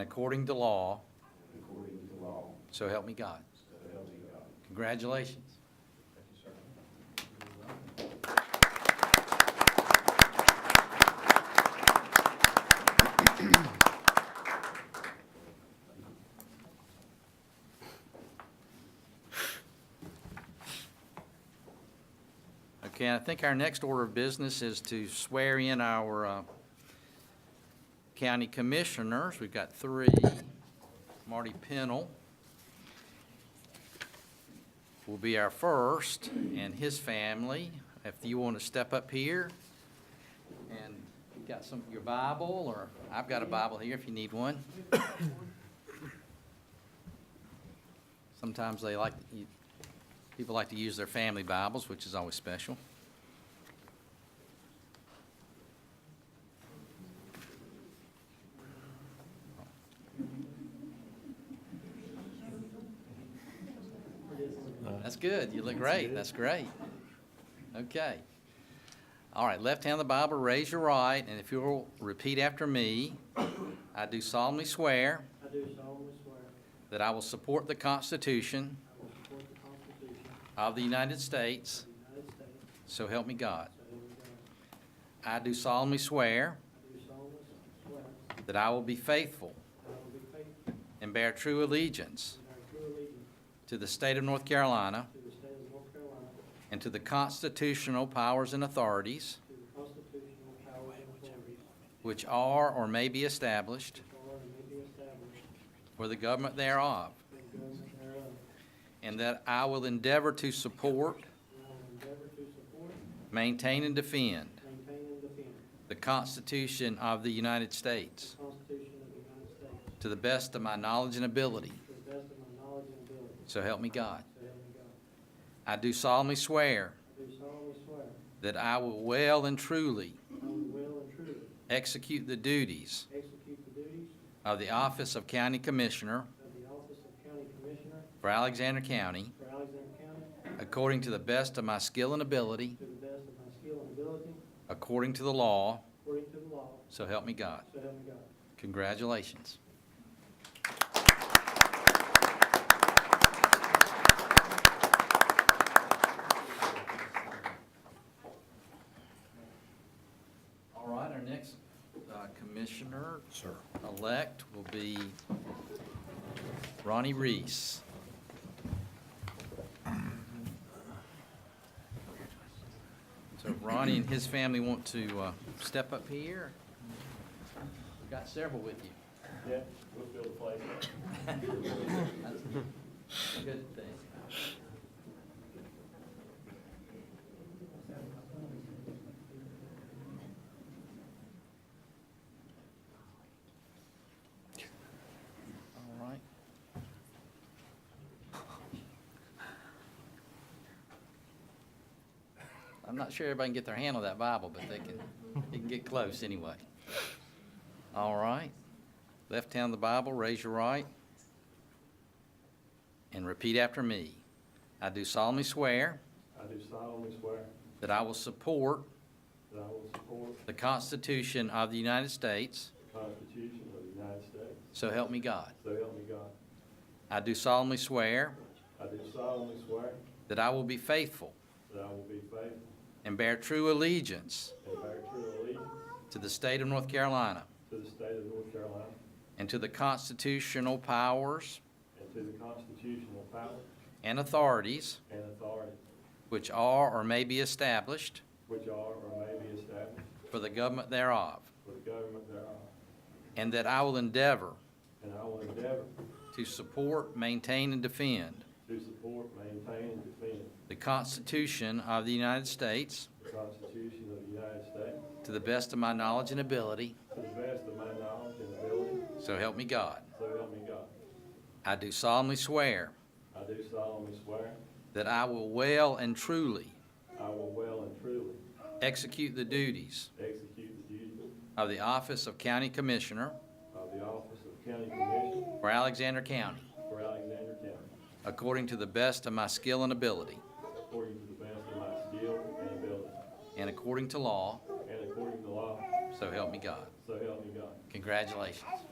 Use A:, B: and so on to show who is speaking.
A: according to law,
B: according to the law,
A: so help me God.
B: so help me God.
A: Congratulations.
B: Thank you, sir.
A: Okay, I think our next order of business is to swear in our uh, county commissioners. We've got three. Marty Pennell will be our first, and his family. If you want to step up here, and you got some, your Bible, or I've got a Bible here if you need one. Sometimes they like, you- People like to use their family Bibles, which is always special. That's good. You look great. That's great. Okay. All right, left hand of the Bible, raise your right, and if you'll repeat after me, I do solemnly swear
C: I do solemnly swear
A: that I will support the Constitution
C: I will support the Constitution of
A: of the United States,
C: the United States,
A: so help me God.
C: so help me God.
A: I do solemnly swear
C: I do solemnly swear that
A: that I will be faithful
C: I will be faithful
A: and bear true allegiance
C: and bear true allegiance
A: to the state of North Carolina
C: to the state of North Carolina,
A: and to the constitutional powers and authorities
C: to the constitutional powers and authorities
A: which are or may be established
C: which are and may be established
A: for the government thereof,
C: for the government thereof,
A: and that I will endeavor to support,
C: and I will endeavor to support,
A: maintain, and defend
C: maintain, and defend
A: the Constitution of the United States
C: the Constitution of the United States
A: to the best of my knowledge and ability,
C: to the best of my knowledge and ability,
A: so help me God.
C: so help me God.
A: I do solemnly swear
C: I do solemnly swear
A: that I will well and truly
C: I will well and truly
A: execute the duties
C: execute the duties
A: of the office of County Commissioner
C: of the office of county commissioner
A: for Alexander County
C: for Alexander County
A: according to the best of my skill and ability,
C: to the best of my skill and ability,
A: according to the law,
C: according to the law,
A: so help me God.
C: so help me God.
A: Congratulations. All right, our next uh, commissioner. Elect will be Ronnie Reese. So if Ronnie and his family want to uh, step up here. We've got several with you.
B: Yeah, we'll fill the place.
A: That's a good thing. All right. I'm not sure everybody can get their hand on that Bible, but they can, they can get close anyway. All right. Left hand on the Bible, raise your right, and repeat after me. I do solemnly swear
B: I do solemnly swear
A: that I will support
B: that I will support
A: the Constitution of the United States,
B: the Constitution of the United States,
A: so help me God.
B: so help me God.
A: I do solemnly swear
B: I do solemnly swear
A: that I will be faithful
B: that I will be faithful
A: and bear true allegiance
B: and bear true allegiance
A: to the state of North Carolina
B: to the state of North Carolina
A: and to the constitutional powers
B: and to the constitutional powers
A: and authorities
B: and authorities
A: which are or may be established
B: which are or may be established
A: for the government thereof,
B: for the government thereof,
A: and that I will endeavor
B: and I will endeavor
A: to support, maintain, and defend
B: to support, maintain, and defend
A: the Constitution of the United States
B: the Constitution of the United States
A: to the best of my knowledge and ability,
B: to the best of my knowledge and ability,
A: so help me God.
B: so help me God.
A: I do solemnly swear
B: I do solemnly swear
A: that I will well and truly
B: I will well and truly
A: execute the duties
B: execute the duties
A: of the office of County Commissioner
B: of the office of County Commissioner
A: for Alexander County,
B: for Alexander County
A: according to the best of my skill and ability,
B: according to the best of my skill and ability
A: and according to law,
B: and according to law,
A: so help me God.
B: so help me God.
A: Congratulations.